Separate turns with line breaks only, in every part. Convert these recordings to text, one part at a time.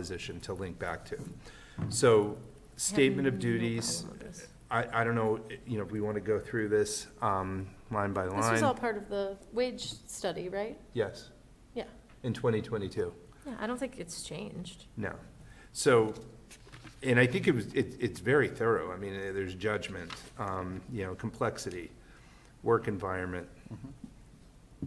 position to link back to. So statement of duties, I, I don't know, you know, if we want to go through this um, line by
This was all
line.
part of the wage study, right?
Yes,
Yeah.
in 2022.
Yeah, I don't think it's changed.
No. So, and I think it was, it, it's very thorough. I mean, eh, there's judgment, um, you know, complexity, work environment.
Mm-hmm.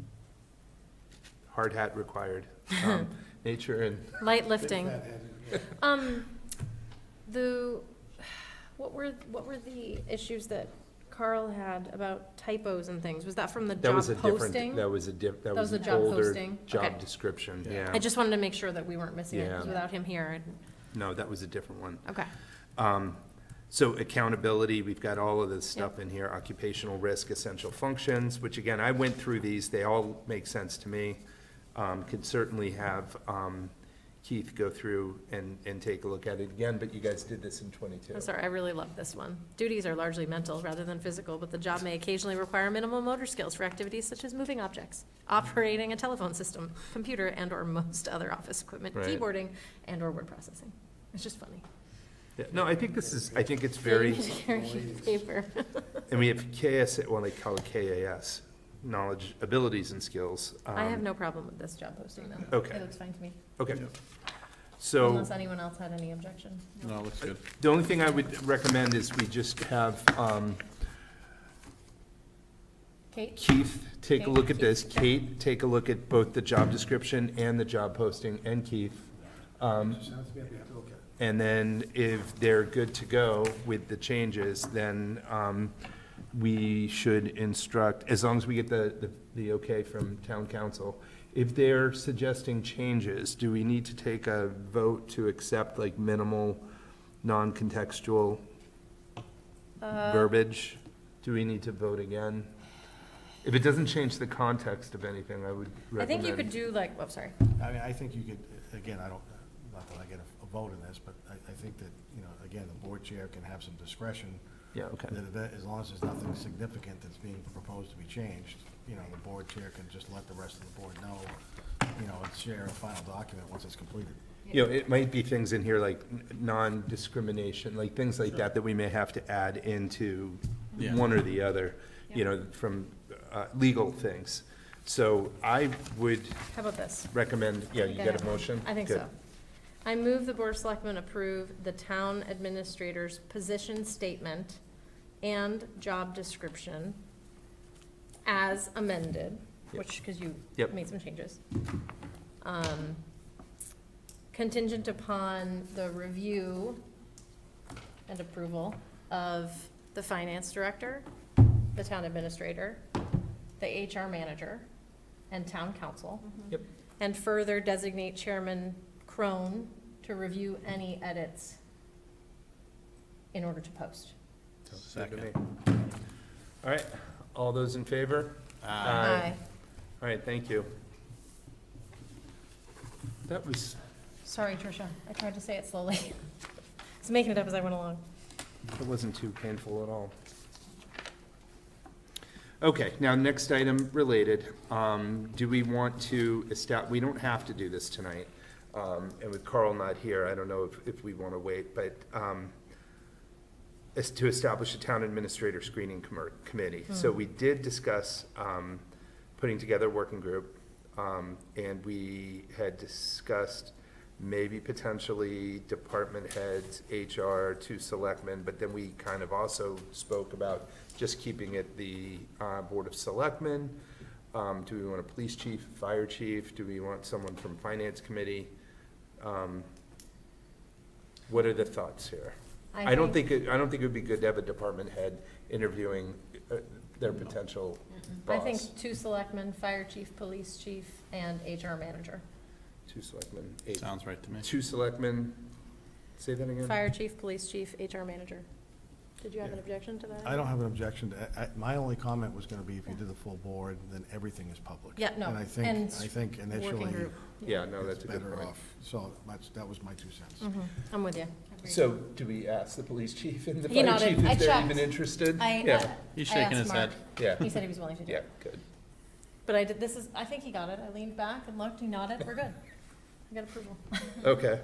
Hard hat required, um, nature and,
Light lifting. Um, the, what were, what were the issues that Carl had about typos and things? Was that from the
that
job
was a different,
posting?
that was a diff, that
That
was
was the
an
job
older
posting? Okay.
job description,
Yeah.
yeah.
I just wanted to make sure that we weren't missing it, 'cause
Yeah.
without him here, I'd-
No, that was a different one.
okay.
Um, So accountability, we've got all of this stuff in here, occupational risk, essential functions, which again, I went through these, they all make sense to me. Um, Could certainly have um, Keith go through and, and take a look at it again, but you guys did this in twenty-two.
I'm sorry, I really love this one. Duties are largely mental rather than physical, but the job may occasionally require minimal motor skills for activities such as moving objects, operating a telephone system, computer and/or most other office equipment,
Right.
keyboarding and/or word processing. It's just funny.
Yeah, No, I think this is, I think it's very,
Carry paper.
and we have KS, well, they call it KAS, knowledge, abilities and skills.
I have
Um,
no problem with this job posting though.
Okay,
It looks fine to me,
okay.
Yeah.
So.
unless anyone else had any objection.
No, looks good.
The only thing I would recommend is we just have um,
Kate?
Keith take a look at
Kate,
this, Kate take a look at both the job description and the job posting, and Keith. Um, And then if they're good to go with the changes, then um, we should instruct, as long as we get the, the- the okay from town council, if they're suggesting changes, do we need to take a vote to accept like minimal, non-contextual verbiage? Do we need to vote again? If it doesn't change the context of anything, I would
I
recommend.
think you could do like, oh, sorry.
I mean, I think you could, again, I don't, not that I get a- a vote in this, but I, I think that, you know, again, the board chair can have some discretion.
Yeah, okay.
That, if that- as long as there's nothing significant that's being proposed to be changed, you know, the board chair can just let the rest of the board know, you know, and share a final document once it's completed.
You know, it might be things in here like n- non-discrimination, like things like that, that we may have to add into
Yeah.
one or the other, you know, from uh, legal things. So I would
How about this?
recommend, yeah,
I
you
think I
got
have
a
one.
motion?
I think
Good.
so. I move the Board of Selectmen approve the town administrator's position statement and job description as amended,
Yep.
which, because you
Yep.
made some changes. Um, Contingent upon the review and approval of the finance director, the town administrator, the HR manager, and town council.
Yep.
And further designate Chairman Crone to review any edits in order to post.
Sounds good to me. All right, all those in favor? All right, thank you. That was,
Sorry, Tricia, I tried to say it slowly. I was making it up as I went along.
It wasn't too painful at all. Okay, now, next item related, um, do we want to establish, we don't have to do this tonight. Um, and with Carl not here, I don't know if, if we want to wait, but, um, is to establish a town administrator screening commer- committee. So we did discuss, um, putting together a working group. Um, and we had discussed maybe potentially department heads, HR, two selectmen, but then we kind of also spoke about just keeping it the, uh, Board of Selectmen. Um, do we want a police chief, fire chief? Do we want someone from finance committee? Um, What are the thoughts here? I don't think, it- I don't think it would be good to have a department head interviewing uh, their potential
I think
boss.
two selectmen, fire chief, police chief, and HR manager.
Two selectmen, eight,
Sounds right to me.
two selectmen, say that again?
Fire chief, police chief, HR manager. Did you have an objection to that?
I don't have an objection to, I, I- my only comment was gonna be if you did the full board, then everything is public.
Yeah, no,
And I think,
and
I think
Working
initially,
group.
Yeah, no,
it's
that's a good
better
point.
off. So, that's, that was my two cents.
I'm with you.
So do we ask the police chief and the
He
fire
nodded.
chief
I
if they're
checked.
even interested?
I, uh,
Yeah,
He's
I
shaking
asked
his head.
Mark.
Yeah,
He said he was willing to do
yeah,
it.
good.
But I did, this is, I think he got it. I leaned back and looked, he nodded, we're good. I got approval.
Okay,